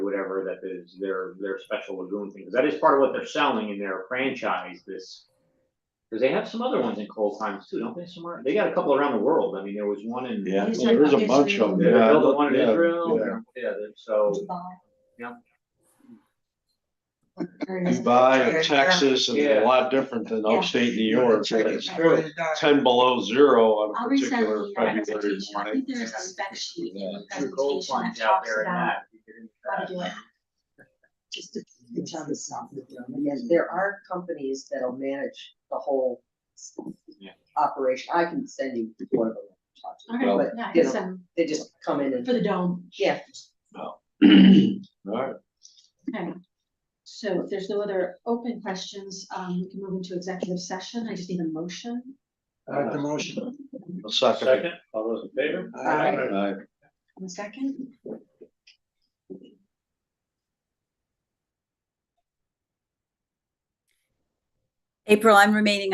whatever that is their their special lagoon thing. Because that is part of what they're selling in their franchise. This because they have some other ones in cold times too, don't they? Somewhere they got a couple around the world. I mean, there was one in Yeah, He's well, there's a like, bunch of them. they Yeah, built one in yeah, Israel. yeah. Yeah, they're- so Dubai and Texas and a Yeah. lot different than Yeah. upstate New You're York. check but it It's before the dark. ten below zero on a I'll resend particular the uh, February presentation. I morning. think there is a spec sheet in the two cold presentation that times out talks there in about that. you get into how that. to do it. Just to each other something. And yes, there are companies that'll manage the whole s- Yeah. operation. I can send you one of them. to talk to. All Well, right, yeah, I you can know. send They just come in and, for the dome. yeah, Alright, Okay. So if there's no other open questions, um, we can move into executive session. I just need a motion. Make the motion. I'll second it. Second, all those in favor? Aye. Aye. One second. April, I'm remaining